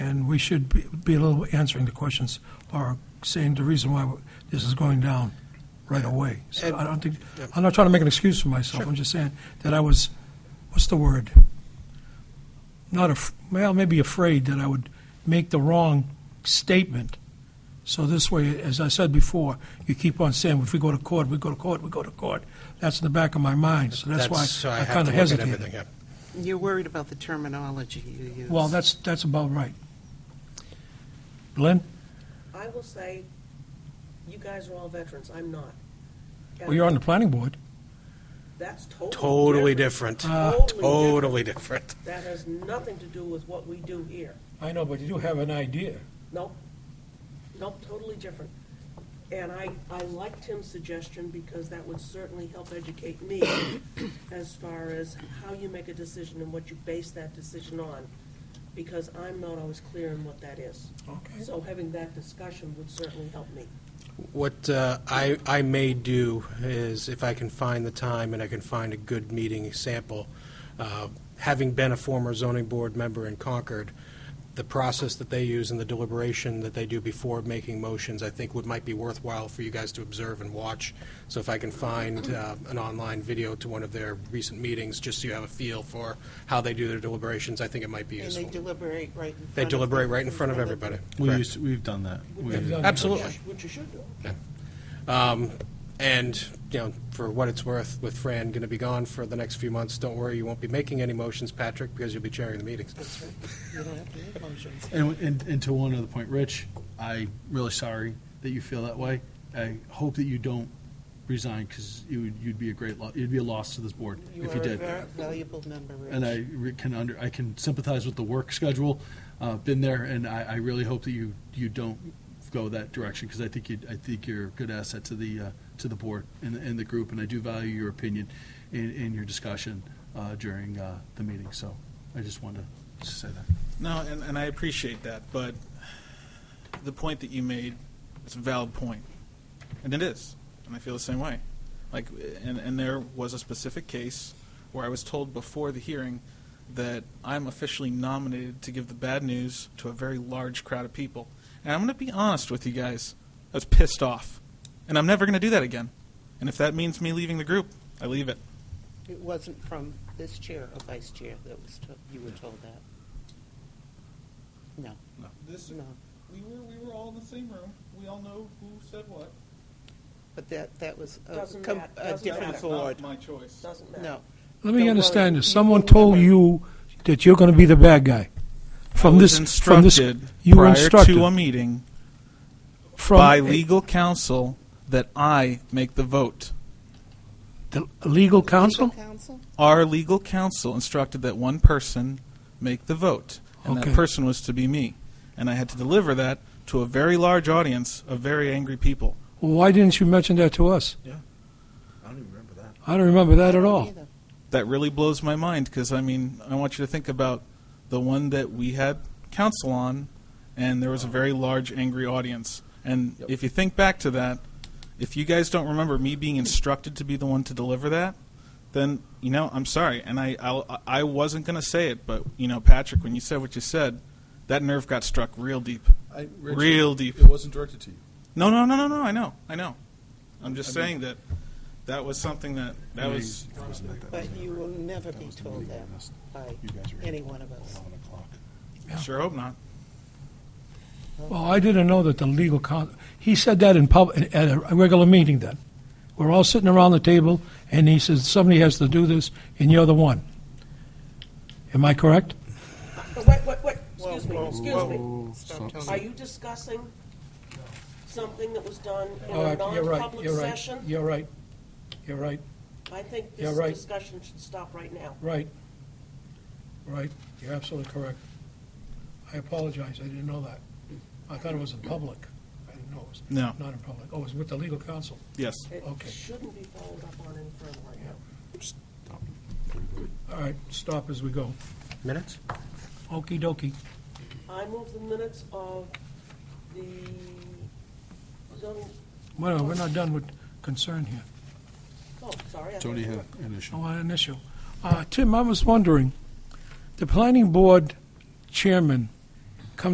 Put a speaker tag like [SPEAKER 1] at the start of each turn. [SPEAKER 1] and we should be be a little answering the questions or saying the reason why this is going down right away. So I don't think, I'm not trying to make an excuse for myself, I'm just saying that I was, what's the word? Not, af- well, maybe afraid that I would make the wrong statement. So this way, as I said before, you keep on saying, if we go to court, we go to court, we go to court. That's in the back of my mind, so that's
[SPEAKER 2] so
[SPEAKER 1] why I
[SPEAKER 2] have to
[SPEAKER 1] kind of
[SPEAKER 2] look at everything,
[SPEAKER 1] hesitated.
[SPEAKER 2] yeah.
[SPEAKER 3] You're worried about the terminology you use.
[SPEAKER 1] Well, that's, that's about right. Lynn?
[SPEAKER 4] I will say, you guys are all veterans, I'm not.
[SPEAKER 1] Well, you're on the planning board.
[SPEAKER 4] That's totally.
[SPEAKER 2] Totally different.
[SPEAKER 1] Uh,
[SPEAKER 4] Totally
[SPEAKER 2] Totally different.
[SPEAKER 4] different. That has nothing to do with what we do here.
[SPEAKER 1] I know, but you do have an idea.
[SPEAKER 4] Nope. Nope, totally different. And I, I like Tim's suggestion because that would certainly help educate me as far as how you make a decision and what you base that decision on, because I'm not always clear in what that is.
[SPEAKER 1] Okay.
[SPEAKER 4] So having that discussion would certainly help me.
[SPEAKER 2] What uh, I, I may do is, if I can find the time and I can find a good meeting example, uh, having been a former zoning board member in Concord, the process that they use and the deliberation that they do before making motions, I think would, might be worthwhile for you guys to observe and watch. So if I can find uh, an online video to one of their recent meetings, just so you have a feel for how they do their deliberations, I think it might be
[SPEAKER 3] And
[SPEAKER 2] useful.
[SPEAKER 3] they deliberate right in front of.
[SPEAKER 2] They deliberate right in front of everybody.
[SPEAKER 5] We
[SPEAKER 2] Correct.
[SPEAKER 5] used, we've done that.
[SPEAKER 1] We've
[SPEAKER 5] We've-
[SPEAKER 1] done-
[SPEAKER 2] Absolutely. Um,
[SPEAKER 4] Which you should do.
[SPEAKER 2] And, you know, for what it's worth, with Fran going to be gone for the next few months, don't worry, you won't be making any motions, Patrick, because you'll be chairing the meetings.
[SPEAKER 3] That's right. You don't have to make motions.
[SPEAKER 5] And, and, and to one other point, Rich, I really sorry that you feel that way. I hope that you don't resign because you would, you'd be a great, lo- you'd be a loss to this board
[SPEAKER 3] You
[SPEAKER 5] if you
[SPEAKER 3] are a
[SPEAKER 5] did.
[SPEAKER 3] very valuable member, Rich.
[SPEAKER 5] And I re- can under, I can sympathize with the work schedule, uh, been there, and I, I really hope that you, you don't go that direction because I think you, I think you're a good asset to the, uh, to the board and, and the group, and I do value your opinion in, in your discussion, uh, during, uh, the meeting, so I just wanted to say that.
[SPEAKER 6] No, and, and I appreciate that, but the point that you made is a valid point, and it is, and I feel the same way. Like, and, and there was a specific case where I was told before the hearing that I'm officially nominated to give the bad news to a very large crowd of people. And I'm going to be honest with you guys, I was pissed off, and I'm never going to do that again. And if that means me leaving the group, I leave it.
[SPEAKER 3] It wasn't from this chair or vice chair that was, to- you were told that. No,
[SPEAKER 6] This,
[SPEAKER 3] no.
[SPEAKER 6] we were we were all in the same room. We all know who said what.
[SPEAKER 3] But that, that was a
[SPEAKER 4] Doesn't
[SPEAKER 3] com-
[SPEAKER 4] mat-
[SPEAKER 3] a
[SPEAKER 4] doesn't
[SPEAKER 3] different
[SPEAKER 4] matter.
[SPEAKER 3] board.
[SPEAKER 6] my choice.
[SPEAKER 4] Doesn't matter.
[SPEAKER 3] No.
[SPEAKER 1] Let
[SPEAKER 3] Don't
[SPEAKER 1] me
[SPEAKER 3] worry.
[SPEAKER 1] understand this.
[SPEAKER 3] You
[SPEAKER 1] Someone
[SPEAKER 3] will
[SPEAKER 1] told
[SPEAKER 3] never-
[SPEAKER 1] you that you're going to be the bad guy. From this, from this, you were
[SPEAKER 6] prior
[SPEAKER 1] instructed
[SPEAKER 6] to a meeting
[SPEAKER 1] from
[SPEAKER 6] by
[SPEAKER 1] a-
[SPEAKER 6] legal counsel that I make the vote.
[SPEAKER 1] the legal counsel.
[SPEAKER 3] Council?
[SPEAKER 6] Our legal counsel instructed that one person make the vote, and
[SPEAKER 1] Okay.
[SPEAKER 6] that person was to be me, and I had to deliver that to a very large audience of very angry people.
[SPEAKER 1] Why didn't you mention that to us?
[SPEAKER 7] I don't even remember that.
[SPEAKER 1] I don't remember that at all.
[SPEAKER 3] Neither.
[SPEAKER 6] that really blows my mind because I mean, I want you to think about the one that we had counsel on, and there was a very large, angry audience. And if you think back to that, if you guys don't remember me being instructed to be the one to deliver that, then you know I'm sorry, and I I'll, I wasn't gonna say it, but you know, Patrick, when you said what you said, that nerve got struck real deep.
[SPEAKER 7] I,
[SPEAKER 6] Real deep.
[SPEAKER 7] It wasn't directed to you.
[SPEAKER 6] No, no, no, no, no. I know, I know. I'm just saying that that was something that that was.
[SPEAKER 3] But you will never be told that by
[SPEAKER 5] You guys were-
[SPEAKER 3] any one of us.
[SPEAKER 5] Eleven o'clock.
[SPEAKER 6] I Sure hope not.
[SPEAKER 1] Well, I didn't know that the legal counsel. He said that in public at a regular meeting. Then we're all sitting around the table, and he says somebody has to do this, and you're the one. Am I correct?
[SPEAKER 4] Uh, Wait, wait, wait, excuse me,
[SPEAKER 3] Whoa,
[SPEAKER 4] excuse me.
[SPEAKER 3] Stop
[SPEAKER 4] Are
[SPEAKER 1] um,
[SPEAKER 3] telling
[SPEAKER 4] you discussing something that was done in
[SPEAKER 1] Oh,
[SPEAKER 4] a
[SPEAKER 1] I- You're right.
[SPEAKER 4] non-public
[SPEAKER 1] You're right.
[SPEAKER 4] session?
[SPEAKER 1] You're right. You're right.
[SPEAKER 4] I think
[SPEAKER 1] You're
[SPEAKER 4] this
[SPEAKER 1] right.
[SPEAKER 4] discussion should stop right now.
[SPEAKER 1] Right. Right. You're absolutely correct. I apologize. I didn't know that. I thought it was in public. I didn't know it was
[SPEAKER 6] No.
[SPEAKER 1] not in public. Oh, it was with the legal counsel.
[SPEAKER 6] Yes.
[SPEAKER 4] It
[SPEAKER 1] Okay.
[SPEAKER 4] shouldn't be followed up on any further right now.
[SPEAKER 1] All right, stop as we go.
[SPEAKER 2] Minutes?
[SPEAKER 1] Okey dokey.
[SPEAKER 4] I move the minutes of the oh, zoning,
[SPEAKER 1] Well, we're not done with concern here.
[SPEAKER 4] oh, sorry. I thought
[SPEAKER 5] Tony
[SPEAKER 4] you were-
[SPEAKER 5] had an issue.
[SPEAKER 1] Oh, an issue. Uh, Tim, I was wondering, the planning board chairman